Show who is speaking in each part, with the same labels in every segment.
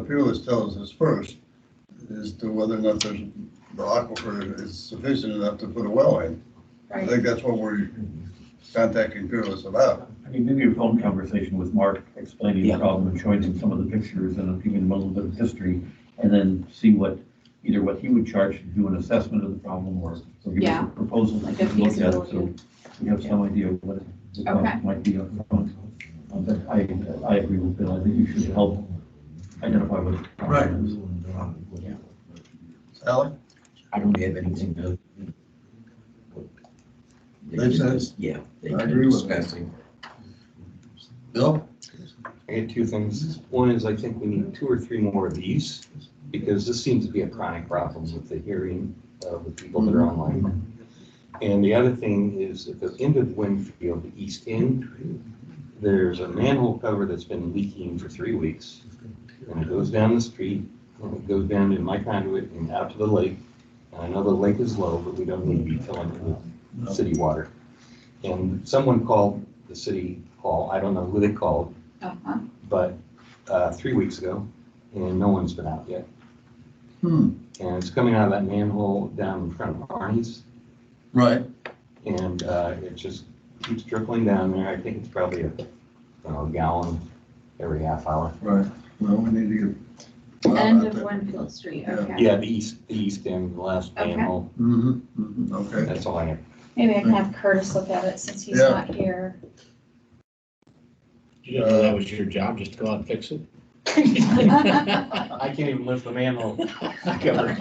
Speaker 1: Fuel is telling us first, as to whether or not there's, the aquifer is sufficient enough to put a well in. I
Speaker 2: right?
Speaker 1: think that's what we're contacting Peerless about.
Speaker 3: I mean, maybe a phone conversation with Mark explaining the
Speaker 4: Yeah.
Speaker 3: problem and showing him some of the pictures and giving him a little bit of history and then see what, either what he would charge to do an assessment of the problem or or give us
Speaker 2: Yeah.
Speaker 3: a proposal. to
Speaker 2: Like a
Speaker 3: look at, So
Speaker 2: feasibility.
Speaker 3: we have some idea of what the cost
Speaker 2: Okay.
Speaker 3: might be up front. Um, But I, I agree with Bill. I think you should help identify what. the problem
Speaker 4: Right.
Speaker 3: is.
Speaker 1: Alan?
Speaker 4: I don't have anything to. They
Speaker 1: Makes
Speaker 4: can
Speaker 1: sense.
Speaker 4: just- Yeah. they
Speaker 1: I
Speaker 4: can
Speaker 1: agree with
Speaker 4: discuss it.
Speaker 1: Bill?
Speaker 5: I had two things. One is I think we need two or three more of these because this seems to be a chronic problem with the hearing of the people that are online. And the other thing is at the end of Winfield, the east end, there's a manhole cover that's been leaking for three weeks. And it goes down the street, and it goes down to my conduit and out to the lake. And I know the lake is low, but we don't need to be filling it with city water. And someone called the city hall, I don't know who they called,
Speaker 2: Uh-huh.
Speaker 5: but uh, three weeks ago, and no one's been out yet.
Speaker 1: Hmm,
Speaker 5: And it's coming out of that manhole down in front of Arnie's,
Speaker 1: right.
Speaker 5: and uh, it just keeps trickling down there. I think it's probably a, you know, gallon every half hour.
Speaker 1: Right. Well, we need to get.
Speaker 2: End of Winfield Street,
Speaker 1: Yeah.
Speaker 2: okay.
Speaker 5: Yeah, the east, the east end, the last
Speaker 2: Okay.
Speaker 5: manhole.
Speaker 1: Mm-hmm, okay.
Speaker 5: That's all I have.
Speaker 2: Maybe I can have Curtis look at it since he's
Speaker 1: Yeah.
Speaker 2: not here.
Speaker 6: You didn't know that was your job, just to go out and fix it?
Speaker 5: I can't even lift the manhole cover.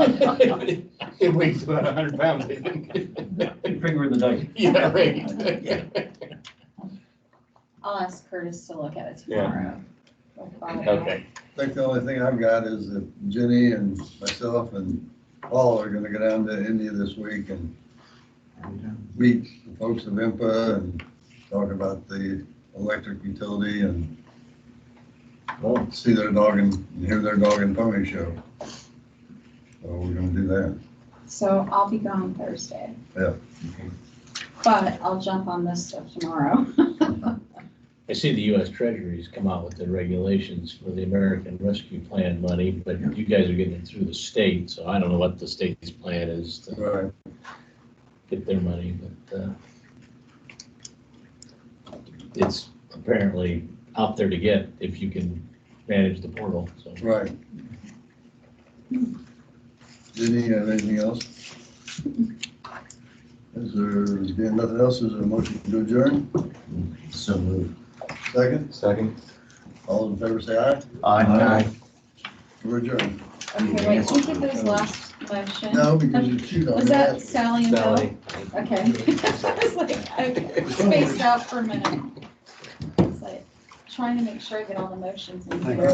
Speaker 5: It weighs about a hundred pounds, I think.
Speaker 3: Finger in the dike.
Speaker 5: Yeah, right.
Speaker 2: I'll ask Curtis to look at it
Speaker 5: Yeah.
Speaker 2: tomorrow. We'll follow up.
Speaker 5: Okay.
Speaker 1: I think the only thing I've got is that Jenny and myself and Paul are gonna go down to India this week and meet the folks of IMPA and talk about the electric utility and well, see their dog and hear their dog and pony show. So we're gonna do that.
Speaker 2: So I'll be gone Thursday.
Speaker 1: Yeah.
Speaker 2: But I'll jump on this stuff tomorrow.
Speaker 6: I see the US Treasury's come out with the regulations for the American Rescue Plan money, but you guys are getting it through the state, so I don't know what the state's plan is to
Speaker 1: Right.
Speaker 6: get their money, but, uh, it's apparently out there to get if you can manage the portal, so.
Speaker 1: Right. Jenny, you have anything else? Is there, being nothing else, is there a motion to adjourn?
Speaker 4: So moved.
Speaker 1: Second?
Speaker 5: Second.
Speaker 1: All in favor, say aye.
Speaker 4: Aye.
Speaker 1: We're adjourned.
Speaker 2: Okay, wait, who did those last motion?
Speaker 1: No, because you chewed on
Speaker 2: Was that
Speaker 1: that.
Speaker 2: Sally and Bill?
Speaker 5: Sally.
Speaker 2: Okay. I was like, I spaced out for a minute. It's like Trying to make sure I get all the motions in here.